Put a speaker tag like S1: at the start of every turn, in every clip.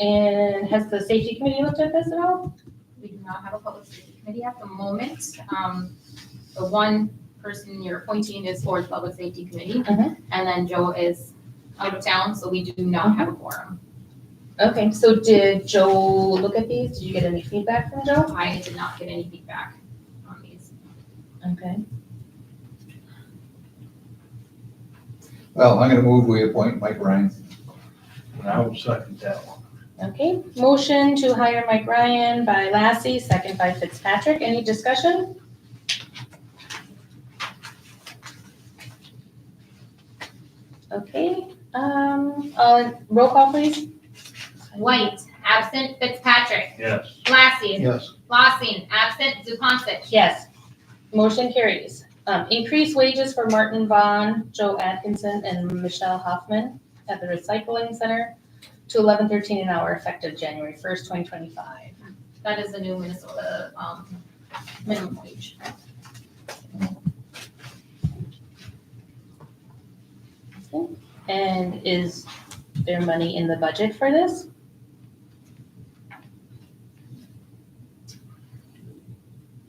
S1: And has the safety committee looked at this at all?
S2: We do not have a public safety committee at the moment. Um, the one person you're appointing is for the public safety committee.
S1: Mhm.
S2: And then Joe is out of town, so we do not have a quorum.
S1: Okay, so did Joe look at these? Did you get any feedback from Joe?
S2: I did not get any feedback on these.
S1: Okay.
S3: Well, I'm gonna move, we appoint Mike Ryan.
S4: And I will second that one.
S1: Okay, motion to hire Mike Ryan by Lassie, second by Fitzpatrick. Any discussion? Okay, um, uh, roll call please.
S2: White, absent Fitzpatrick.
S4: Yes.
S2: Lassie,
S4: Yes.
S2: Lossing, absent Zupansich.
S1: Yes. Motion carries. Um, increase wages for Martin Vaughn, Joe Atkinson, and Michelle Hoffman at the recycling center to eleven thirteen an hour effective January first, twenty twenty-five.
S2: That is the new Minnesota, um, minimum wage.
S1: And is there money in the budget for this?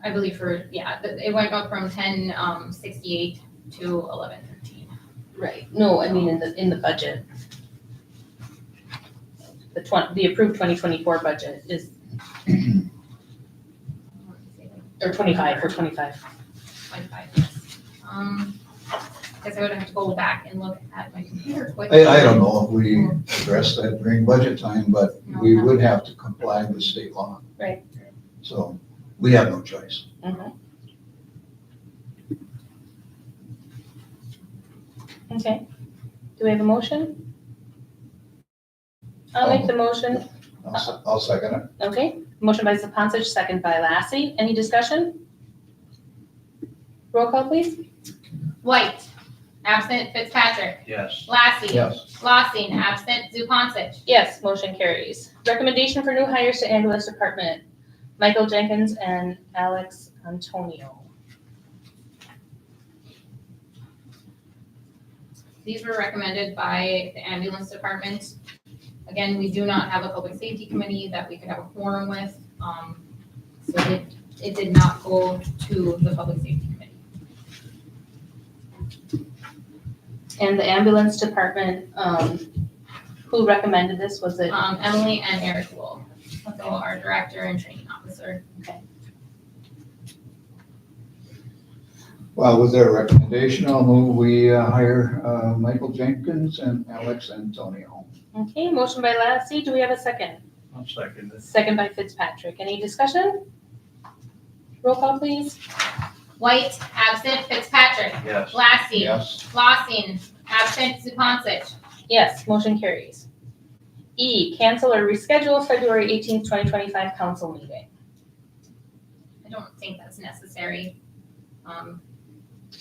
S2: I believe for, yeah, th- it went up from ten, um, sixty-eight to eleven thirteen.
S1: Right. No, I mean in the, in the budget. The twen- the approved twenty twenty-four budget is, or twenty-five, for twenty-five.
S2: Twenty-five, yes. Um, guess I would have to go back and look at my computer quick.
S3: I, I don't know if we address that during budget time, but we would have to comply with state law.
S1: Right.
S3: So we have no choice.
S1: Okay. Do we have a motion? I'll make the motion.
S3: I'll, se- I'll second it.
S1: Okay. Motion by Sapansich, second by Lassie. Any discussion? Roll call, please.
S2: White, absent Fitzpatrick,
S4: Yes.
S2: Lassie.
S3: Yes.
S2: Lossing, absent Zupansich.
S1: Yes, motion carries. Recommendation for new hires to ambulance department, Michael Jenkins and Alex Antonio.
S2: These were recommended by the ambulance department. Again, we do not have a public safety committee that we could have a forum with, um, so it, it did not go to the public safety committee.
S1: And the ambulance department, um, who recommended this, was it?
S2: Um, Emily and Eric Wool, so our director and training officer.
S3: Well, with their recommendation, I'll move, we uh, hire, uh, Michael Jenkins and Alex Antonio.
S1: Okay, motion by Lassie, do we have a second?
S4: I'll second it.
S1: Second by Fitzpatrick, any discussion? Roll call, please.
S2: White, absent Fitzpatrick,
S4: Yes.
S2: Lassie,
S3: Yes.
S2: Flossing, absent Zupansich.
S1: Yes, motion carries. E, cancel or reschedule February eighteenth, twenty twenty-five council meeting.
S2: I don't think that's necessary. Um,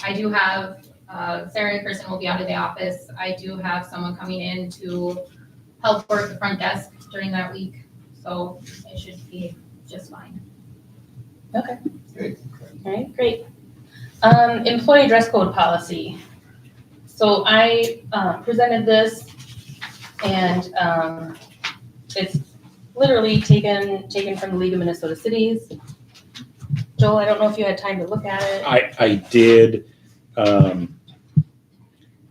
S2: I do have, uh, Sarah in person will be out of the office. I do have someone coming in to help work the front desk during that week, so it should be just fine.
S3: Okay.
S1: All right, great. Um, employee dress code policy. So I, uh, presented this and, um, it's literally taken, taken from the League of Minnesota Cities. Joel, I don't know if you had time to look at it.
S5: I, I did, um,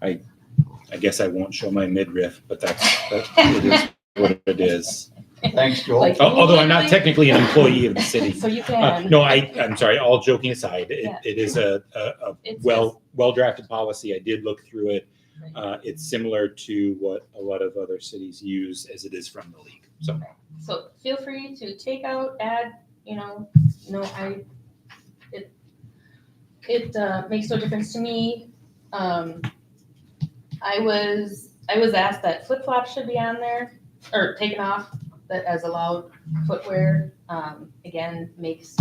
S5: I, I guess I won't show my midriff, but that's, that it is what it is.
S3: Thanks, Joel.
S1: Like-
S5: Al- Although I'm not technically an employee of the city.
S1: So you
S5: Uh,
S1: can.
S5: No, I, I'm sorry, all joking aside, it,
S1: Yeah.
S5: it is a, a, a
S1: It's just-
S5: well, well-drafted policy. I did look through it.
S1: Right.
S5: Uh, it's similar to what a lot of other cities use as it is from the league. So
S1: So feel free to take out, add, you know, no, I, it, it, uh, makes no difference to me. Um, I was, I was asked that flip flops should be on there, or taken off, that as allowed footwear, um, again, makes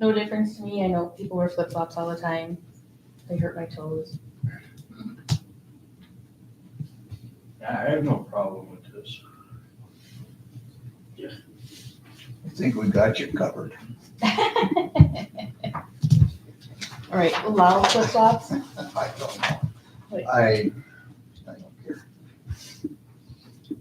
S1: no difference to me. I know people wear flip flops all the time. They hurt my toes.
S4: I have no problem with this.
S3: I think we got you covered.
S1: All right, allow flip flops.
S3: I don't know. I